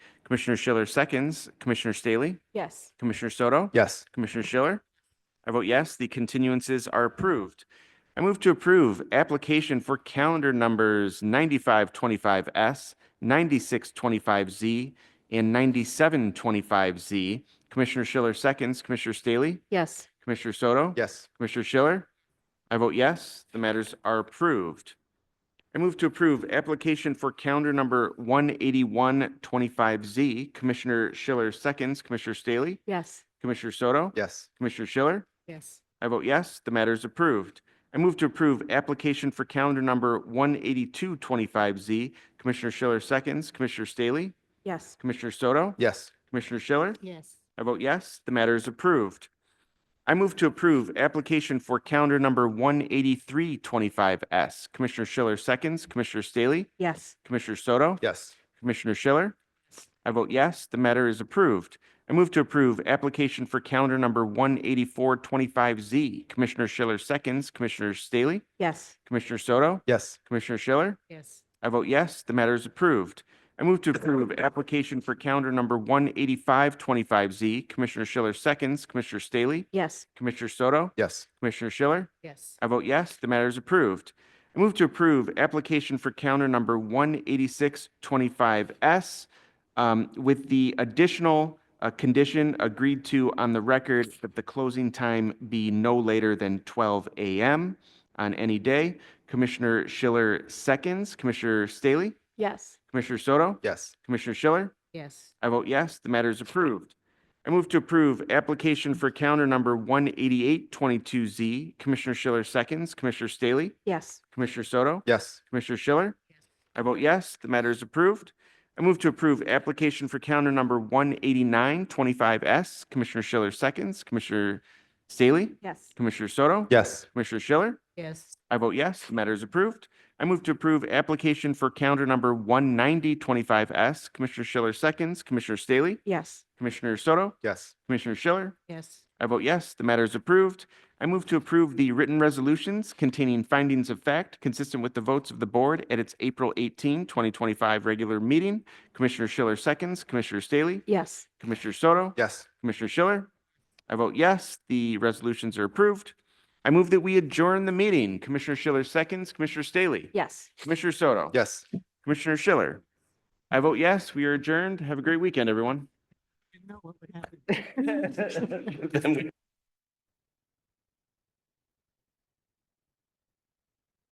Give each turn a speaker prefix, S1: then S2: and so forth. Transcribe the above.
S1: Commissioner Schiller seconds, Commissioner Staley,
S2: Yes.
S1: Commissioner Soto?
S3: Yes.
S1: Commissioner Schiller? I vote yes, the continuances are approved. I move to approve application for calendar numbers 9525S, 9625Z, and 9725Z. Commissioner Schiller seconds, Commissioner Staley,
S2: Yes.
S1: Commissioner Soto?
S3: Yes.
S1: Commissioner Schiller? I vote yes, the matters are approved. I move to approve application for calendar number 18125Z. Commissioner Schiller seconds, Commissioner Staley,
S2: Yes.
S1: Commissioner Soto?
S3: Yes.
S1: Commissioner Schiller?
S2: Yes.
S1: I vote yes, the matter is approved. I move to approve application for calendar number 18225Z. Commissioner Schiller seconds, Commissioner Staley,
S2: Yes.
S1: Commissioner Soto,
S3: Yes.
S1: Commissioner Schiller.
S2: Yes.
S1: I vote yes, the matter is approved. I move to approve application for calendar number 18325S. Commissioner Schiller seconds, Commissioner Staley,
S2: Yes.
S1: Commissioner Soto,
S3: Yes.
S1: Commissioner Schiller? I vote yes, the matter is approved. I move to approve application for calendar number 18425Z. Commissioner Schiller seconds, Commissioner Staley,
S2: Yes.
S1: Commissioner Soto,
S3: Yes.
S1: Commissioner Schiller?
S2: Yes.
S1: I vote yes, the matter is approved. I move to approve application for calendar number 18525Z. Commissioner Schiller seconds, Commissioner Staley,
S2: Yes.
S1: Commissioner Soto,
S3: Yes.
S1: Commissioner Schiller?
S2: Yes.
S1: I vote yes, the matter is approved. I move to approve application for counter number 18625S um, with the additional uh, condition agreed to on the record that the closing time be no later than 12 a.m. on any day. Commissioner Schiller seconds, Commissioner Staley,
S2: Yes.
S1: Commissioner Soto,
S3: Yes.
S1: Commissioner Schiller.
S2: Yes.
S1: I vote yes, the matter is approved. I move to approve application for counter number 18822Z. Commissioner Schiller seconds, Commissioner Staley,
S2: Yes.
S1: Commissioner Soto,
S3: Yes.
S1: Commissioner Schiller.
S2: Yes.
S1: I vote yes, the matter is approved. I move to approve application for counter number 18925S. Commissioner Schiller seconds, Commissioner Staley,
S2: Yes.
S1: Commissioner Soto,
S3: Yes.
S1: Commissioner Schiller.
S2: Yes.
S1: I vote yes, the matter is approved. I move to approve application for counter number 19025S. Commissioner Schiller seconds, Commissioner Staley,
S2: Yes.
S1: Commissioner Soto,
S3: Yes.
S1: Commissioner Schiller.
S2: Yes.
S1: I vote yes, the matter is approved. I move to approve the written resolutions containing findings of fact consistent with the votes of the board at its April 18, 2025 regular meeting. Commissioner Schiller seconds, Commissioner Staley,
S2: Yes.
S1: Commissioner Soto,
S3: Yes.
S1: Commissioner Schiller. I vote yes, the resolutions are approved. I move that we adjourn the meeting. Commissioner Schiller seconds, Commissioner Staley,
S2: Yes.
S1: Commissioner Soto.
S3: Yes.
S1: Commissioner Schiller. I vote yes, we are adjourned. Have a great weekend, everyone.
S2: I know what would happen.